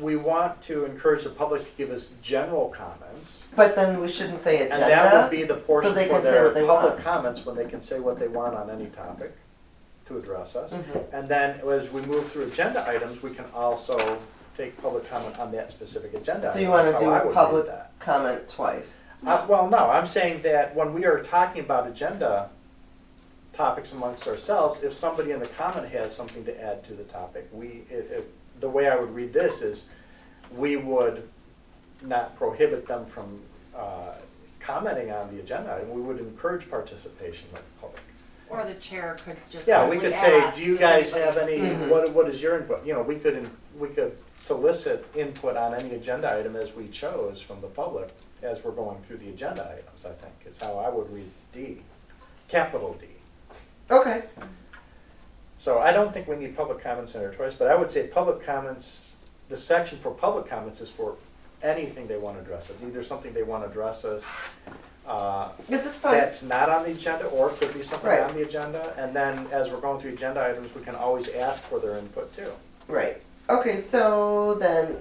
we want to encourage the public to give us general comments. But then we shouldn't say And that would agenda. be the portion they for can say their what they public want. comments, when they can say what they want on any topic to address us. Mhm. And then as we move through agenda items, we can also take public comment on that specific agenda. So item. you want That's to how do Oh, I would read public that. comment twice. Uh, well, no, I'm saying that when we are talking about agenda topics amongst ourselves, if somebody in the comment has something to add to the topic, we, if, if, the way I would read this is, we would not prohibit them from, uh, commenting on the agenda, and we would encourage participation by the public. Or the chair could just. Yeah, we simply could say, ask, do you "Does guys anybody-" have any, Mhm. what, what is your input? You know, we could, in- we could solicit input on any agenda item as we chose from the public as we're going through the agenda items, I think, is how I would read D, capital D. Okay. So I don't think we need public comments in our choice, but I would say public comments, the section for public comments is for anything they want to address us, either something they want to address us, uh, Because it's fine. that's not on the agenda, or it could be something Right. on the agenda, and then as we're going through agenda items, we can always ask for their input too. Right. Okay, so then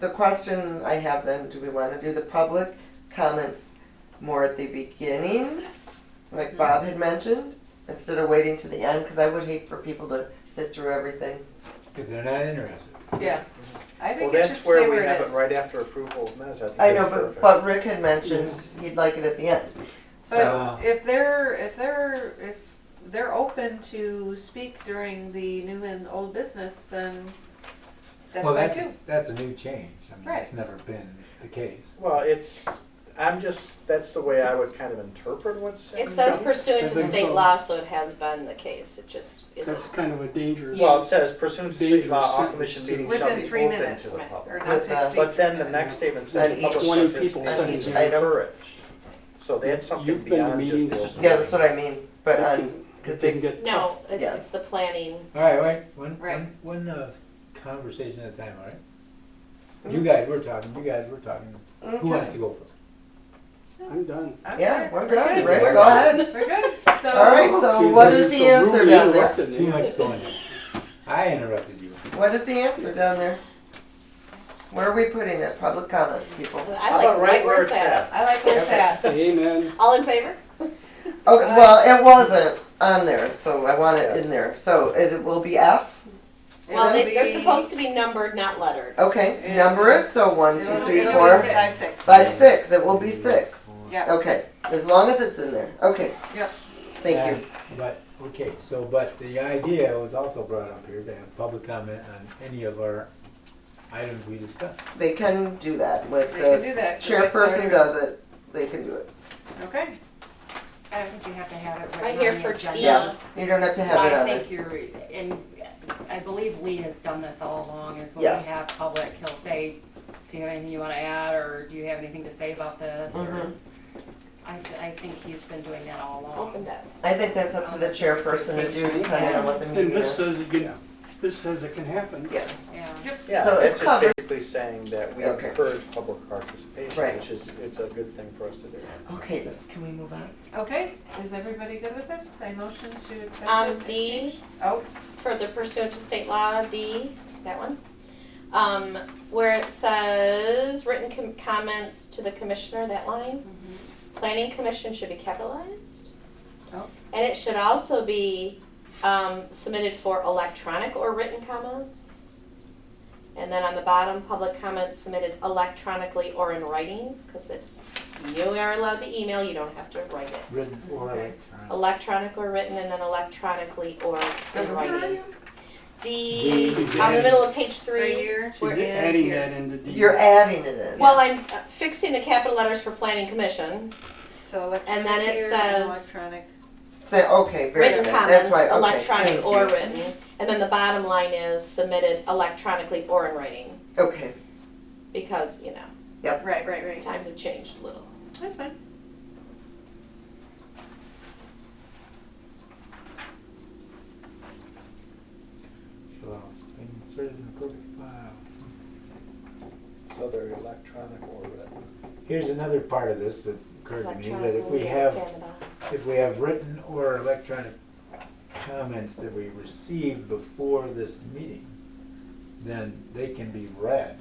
the question I have then, do we want to do the public comments more at the beginning? Like Bob had mentioned, instead of waiting to the end, because I would hate for people to sit through everything. If they're not interested. Yeah, I Well, think it should that's stay where we where have it it is. right after approval of minutes, I think I know, that's but, perfect. but Rick had mentioned he'd like it at the end. So- But if they're, if they're, if they're open to speak during the new and old business, then that's Well, fine that's, too. that's a new change. I mean, it's Right. never been the case. Well, it's, I'm just, that's the way I would kind of interpret what's in. It says the- pursuant I to think state so. law, so it has been the case, it just isn't. That's kind of a dangerous. Well, it says pursuant to state law, Dangerous all commission meetings sentence shall Within be three open to minutes, the or public. not With, to uh, exceed But then the three next minutes. statement says And each public one of people participation sends is you- encouraged. So that's something You've been to beyond just the. meetings. open Yeah, that's what I mean, but um, on, because It didn't they, get tough. No, it- Yeah. it's the planning. All right, wait, one, Right. one, one uh, conversation at a time, all right? Mm-hmm. You guys were talking, you guys were talking. Who wants to go first? I'm done. yeah, we're Okay, good, Rick, we're go ahead. good. We're good, so. All right, so Seems what like is it's the so answer rudely down there? interrupted Too me. much going on. I interrupted you. What is the answer down there? Where are we putting it? Public comments, people. I How like about right where it's at? I like where it's at. Amen. All in favor? Okay, well, it wasn't on there, so I want it in there. So is it, will be F? Well, It'll they, they're be- supposed to be numbered, not lettered. Okay, Yeah. number it, so one, two, it'll- three, it'll be four, Five, six, five, six, it will be six. yeah. Okay, as long as it's in there, okay. Yep. Thank you. And- But, okay, so, but the idea was also brought up here to have public comment on any of our items we discussed. They can do that with They can the do that. 'cause that's chairperson already- does it, they can do it. Okay, I don't think you have to have it Right right here on the for agenda. D. Yeah. You don't have to have it I on there. think you're, and I believe Lee has done this all along, is when Yes. we have public, he'll say, do you have anything you wanna add, or do you have anything to say about this? or- Mhm. I, I think he's been doing that all Opened along. up. I think that's up to the chairperson to do depending on what the And meeting this is. says it can, this says it can happen. Yes, Yeah. Yeah, So it's it's just covered. basically saying that we Okay. encourage public participation, Right. which is, it's a good thing for us to do. okay, let's, can we move on? okay, is everybody good with this? I motion to accept. Um, it. D, Oh, further pursuant to state law, D, that one. Um, where it says written com- comments to the commissioner, that line. Planning commission should be capitalized. Oh. And it should also be, um, submitted for electronic or written comments. And then on the bottom, public comments submitted electronically or in writing, cause it's, you are allowed to email, you don't have to write it. Written or Okay. electronic. Electronic or written, and then electronically or in Uh-huh. writing. D, D. on the middle of page right three. here. She's We're in adding here. that into the. You're adding it in. Well, I'm uh, fixing the capital letters for planning commission, So And then electronic it here says- and electronic. So- Okay, very written good, that's comments, why, okay. electronic thank or you. written. And then the bottom line is submitted electronically or in writing, Okay, because, you know, Right, right, right. times have changed a little. That's fine. So, inserted in the public file. So they're electronic or uh, written. Here's another part of this that occurred to me, that if Electronically, we yeah, it's have, on the bottom. if we have written or electronic comments that we received before this meeting, then they can be read